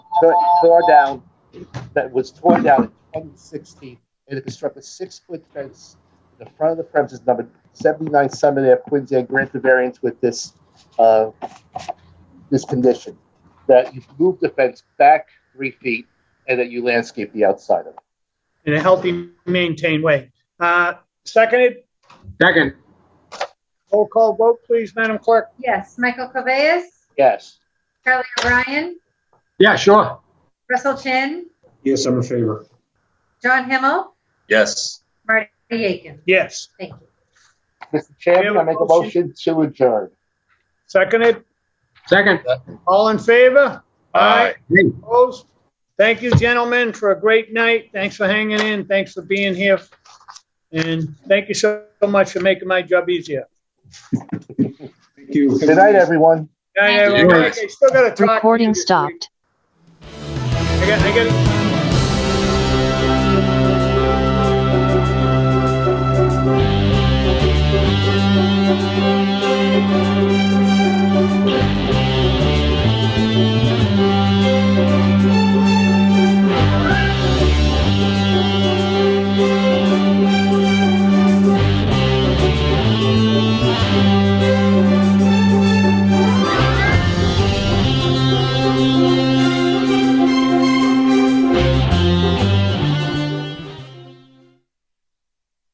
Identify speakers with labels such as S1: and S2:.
S1: tore tore down, that was torn down in 2016, and it constructed a six-foot fence in the front of the premises numbered 79 Summit Ave, Quincy, and grant the variance with this, uh, this condition, that you move the fence back three feet and that you landscape the outside of it.
S2: in a healthy, maintained way. Uh, Seconded,
S3: Second,
S2: roll call vote, please, Madam Clerk.
S4: Yes, Michael Cabeas,
S1: Yes.
S4: Charlie O'Brien,
S3: yeah, sure.
S4: Russell Chin,
S5: Yes, I'm in favor.
S4: John Himmel,
S6: Yes.
S4: Marty Aiken.
S2: Yes.
S4: Thank you.
S1: Mr. Chairman, I make a motion to adjourn.
S2: Seconded,
S3: Second,
S2: all in favor?
S6: Aye.
S3: Hey,
S2: Opposed? Thank you, gentlemen, for a great night. Thanks for hanging in. Thanks for being here. And thank you so much for making my job easier.
S5: Thank you.
S1: Good night, everyone.
S2: Guy,
S4: Thank
S3: you.
S2: I- I still gotta talk. to you
S7: Recording
S2: this week.
S7: stopped.
S2: I got, I got,